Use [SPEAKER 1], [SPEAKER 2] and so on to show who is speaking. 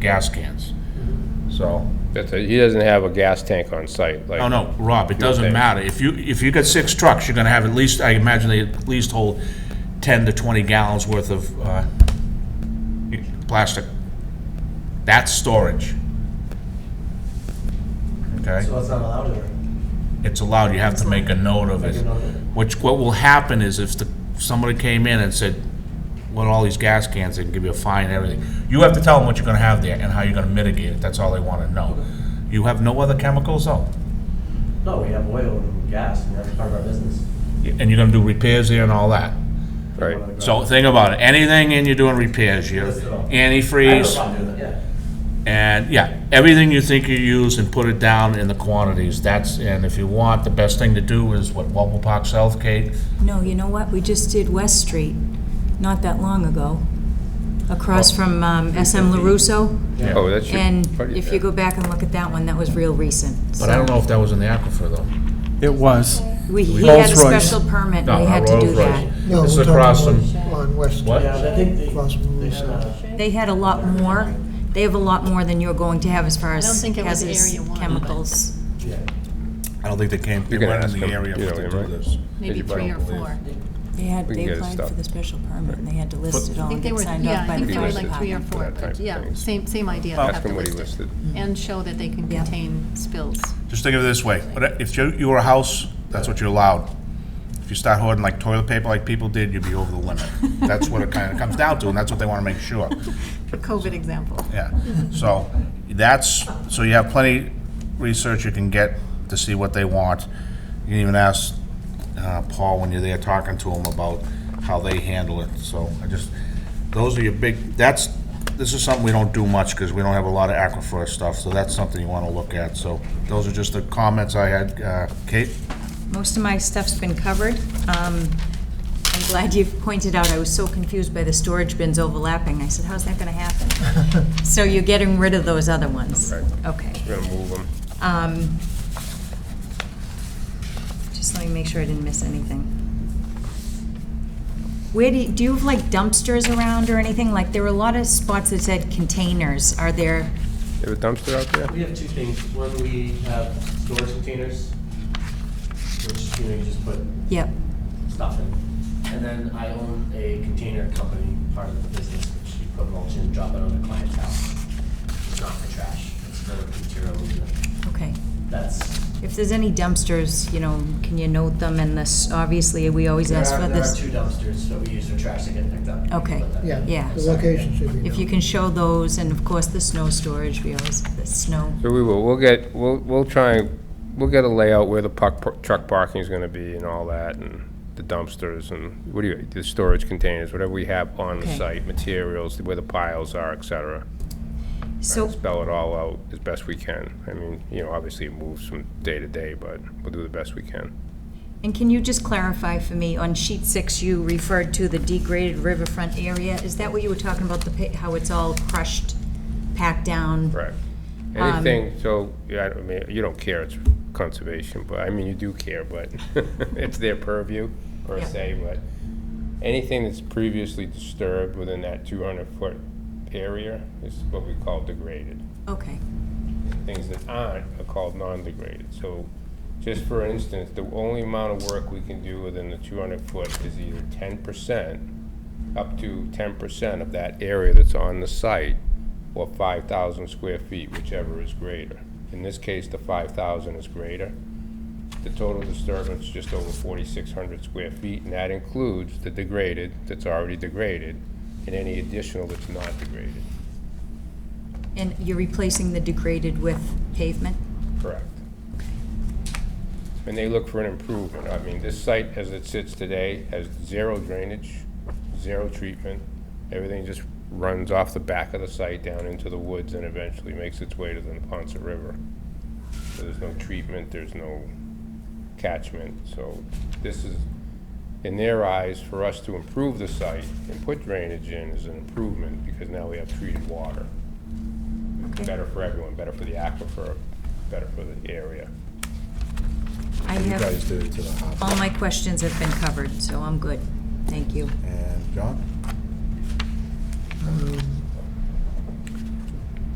[SPEAKER 1] gas cans. So,
[SPEAKER 2] That's it. He doesn't have a gas tank on site,
[SPEAKER 3] Oh,
[SPEAKER 1] no,
[SPEAKER 2] like,
[SPEAKER 1] no, Rob, it doesn't
[SPEAKER 2] Okay.
[SPEAKER 1] matter. If you, if you got six trucks, you're gonna have at least, I imagine they at least hold ten to twenty gallons worth of, uh, plastic. That's storage. Okay?
[SPEAKER 4] So it's not allowed or?
[SPEAKER 1] it's allowed, you have to make a note of it.
[SPEAKER 4] Make a note of it.
[SPEAKER 1] Which, what will happen is if the, somebody came in and said, "What all these gas cans, they can give you a fine and everything. You have to tell them what you're gonna have there and how you're gonna mitigate it, that's all they wanna know. You have no other chemicals though,
[SPEAKER 4] No, we have oil and gas, and that's part of our business.
[SPEAKER 1] and you're gonna do repairs there and all that.
[SPEAKER 2] right?
[SPEAKER 1] So think about it, anything and you're doing repairs, you
[SPEAKER 4] Yes, sir. I have no
[SPEAKER 1] antifreeze,
[SPEAKER 4] problem doing that, yeah.
[SPEAKER 1] And yeah, everything you think you use and put it down in the quantities, that's, and if you want, the best thing to do is what Wobble Park South Gate,
[SPEAKER 5] No, you know what? We just did West Street not that long ago, across
[SPEAKER 1] Oh.
[SPEAKER 5] from um, SM LaRusso.
[SPEAKER 2] Oh, that's your.
[SPEAKER 5] And
[SPEAKER 2] part of your-
[SPEAKER 5] if you go back and look at that one, that was real recent.
[SPEAKER 1] but I don't know if that was in the aquifer though.
[SPEAKER 6] It was.
[SPEAKER 5] We, he had a
[SPEAKER 6] Rolls-Royce.
[SPEAKER 5] special permit,
[SPEAKER 1] No,
[SPEAKER 5] and we
[SPEAKER 1] not
[SPEAKER 5] had to do
[SPEAKER 1] Rolls-Royce.
[SPEAKER 5] that.
[SPEAKER 1] This
[SPEAKER 7] No, we're
[SPEAKER 1] is
[SPEAKER 7] talking
[SPEAKER 1] across
[SPEAKER 7] on,
[SPEAKER 1] from-
[SPEAKER 7] on West.
[SPEAKER 1] What?
[SPEAKER 4] Yeah, but I think they, uh,
[SPEAKER 7] Across from
[SPEAKER 4] they had
[SPEAKER 7] Russo.
[SPEAKER 4] a,
[SPEAKER 5] They had a lot more, they have a lot more than you're going to have as far as
[SPEAKER 3] don't think it was
[SPEAKER 5] hazardous
[SPEAKER 3] area one, but-
[SPEAKER 5] chemicals.
[SPEAKER 4] yeah,
[SPEAKER 1] I don't think they came, they
[SPEAKER 2] You're gonna
[SPEAKER 1] weren't
[SPEAKER 2] ask
[SPEAKER 1] in the
[SPEAKER 2] them,
[SPEAKER 1] area
[SPEAKER 2] you
[SPEAKER 1] for
[SPEAKER 2] know,
[SPEAKER 1] to
[SPEAKER 2] yeah,
[SPEAKER 1] do
[SPEAKER 2] right.
[SPEAKER 1] this.
[SPEAKER 3] maybe
[SPEAKER 2] Did you
[SPEAKER 3] three
[SPEAKER 2] buy
[SPEAKER 3] or
[SPEAKER 2] them?
[SPEAKER 3] four.
[SPEAKER 5] They had,
[SPEAKER 2] We can
[SPEAKER 5] they
[SPEAKER 2] get it
[SPEAKER 5] applied for
[SPEAKER 2] stopped.
[SPEAKER 5] the special permit, and they had to list it all
[SPEAKER 3] I
[SPEAKER 5] and
[SPEAKER 3] think they
[SPEAKER 5] get
[SPEAKER 3] were,
[SPEAKER 5] signed
[SPEAKER 3] yeah,
[SPEAKER 5] off
[SPEAKER 3] I
[SPEAKER 5] by the
[SPEAKER 3] think they
[SPEAKER 5] fire
[SPEAKER 3] were
[SPEAKER 2] Listed
[SPEAKER 3] like three or
[SPEAKER 5] department.
[SPEAKER 2] for
[SPEAKER 3] four,
[SPEAKER 2] that type
[SPEAKER 3] but
[SPEAKER 2] of
[SPEAKER 3] yeah,
[SPEAKER 2] thing.
[SPEAKER 3] same, same idea. They
[SPEAKER 2] Ask
[SPEAKER 3] have
[SPEAKER 2] him
[SPEAKER 3] to
[SPEAKER 2] what he
[SPEAKER 3] list it.
[SPEAKER 2] listed.
[SPEAKER 3] And show that they can
[SPEAKER 5] Yeah.
[SPEAKER 3] contain spills.
[SPEAKER 1] Just think of it this way, What- if you, you were a house, that's what you're allowed. If you start hoarding like toilet paper like people did, you'd be over the limit. That's what it kinda comes down to, and that's what they wanna make sure,
[SPEAKER 3] COVID example.
[SPEAKER 1] yeah. So, that's, so you have plenty research you can get to see what they want. You can even ask, uh, Paul when you're there talking to him about how they handle it, so I just, those are your big, that's, this is something we don't do much, because we don't have a lot of aquifer stuff, so that's something you want to look at, so those are just the comments I had. Uh, Kate?
[SPEAKER 5] Most of my stuff's been covered. Um, I'm glad you've pointed out, I was so confused by the storage bins overlapping. I said, how's that going to happen? So you're getting rid of those other ones? Okay.
[SPEAKER 2] We're gonna move them.
[SPEAKER 5] Um, Just let me make sure I didn't miss anything. Where do, you- do you have like dumpsters around or anything? Like, there were a lot of spots that said containers. Are there,
[SPEAKER 2] You have a dumpster out there?
[SPEAKER 4] we have two things, one, we have storage containers, which, you know, you just put
[SPEAKER 5] yep,
[SPEAKER 4] stuff in. And then I own a container company, part of the business, which you put mulch in, drop it on a client's house. It's not for trash, it's for material movement.
[SPEAKER 5] okay.
[SPEAKER 4] That's
[SPEAKER 5] If there's any dumpsters, you know, can you note them and this, obviously, we always
[SPEAKER 4] There
[SPEAKER 5] ask
[SPEAKER 4] are-
[SPEAKER 5] for this.
[SPEAKER 4] There are two dumpsters that we use for trash that get picked up.
[SPEAKER 5] Okay,
[SPEAKER 4] Put that-
[SPEAKER 5] Yeah.
[SPEAKER 7] The location should be
[SPEAKER 5] If
[SPEAKER 7] known.
[SPEAKER 5] you can show those, and of course, the snow storage, we always, the snow.
[SPEAKER 2] So we will, we'll get, we'll, we'll try, and- we'll get a layout where the puck, truck parking's gonna be and all that, and the dumpsters, and what do you, the storage containers, whatever we have on
[SPEAKER 5] Okay.
[SPEAKER 2] site, materials, where the piles are, et cetera.
[SPEAKER 5] So,
[SPEAKER 2] Spell it all out as best we can. I mean, you know, obviously it moves from day to day, but we'll do the best we can.
[SPEAKER 5] And can you just clarify for me, on sheet six, you referred to the degraded riverfront area. Is that what you were talking about, the, pa- how it's all crushed, packed down?
[SPEAKER 2] Right.
[SPEAKER 5] Um,
[SPEAKER 2] Anything, so, yeah, I don't- I mean, you don't care, it's conservation, but, I mean, you do care, but it's their purview, per
[SPEAKER 5] Yeah.
[SPEAKER 2] se, but anything that's previously disturbed within that 200-foot area is what we call degraded.
[SPEAKER 5] Okay,
[SPEAKER 2] Things that aren't are called non-degraded. So, just for instance, the only amount of work we can do within the 200-foot is either 10%, up to 10% of that area that's on the site, or 5,000 square feet, whichever is greater. In this case, the 5,000 is greater. The total disturbance is just over 4,600 square feet, and that includes the degraded, that's already degraded, and any additional that's not degraded.
[SPEAKER 5] and you're replacing the degraded with pavement?
[SPEAKER 2] Correct. And they look for an improvement. I mean, this site, as it sits today, has zero drainage, zero treatment. Everything just runs off the back of the site down into the woods and eventually makes its way to the Ponce River. So There's no treatment, there's no catchment, so this is, in their eyes, for us to improve the site and put drainage in is an improvement because now we have treated water better for everyone, better for the aquifer, better for the area.
[SPEAKER 5] I
[SPEAKER 1] You guys
[SPEAKER 5] have,
[SPEAKER 1] did it to the house.
[SPEAKER 5] all my questions have been covered, so I'm good. Thank you.
[SPEAKER 1] And John?
[SPEAKER 7] Um,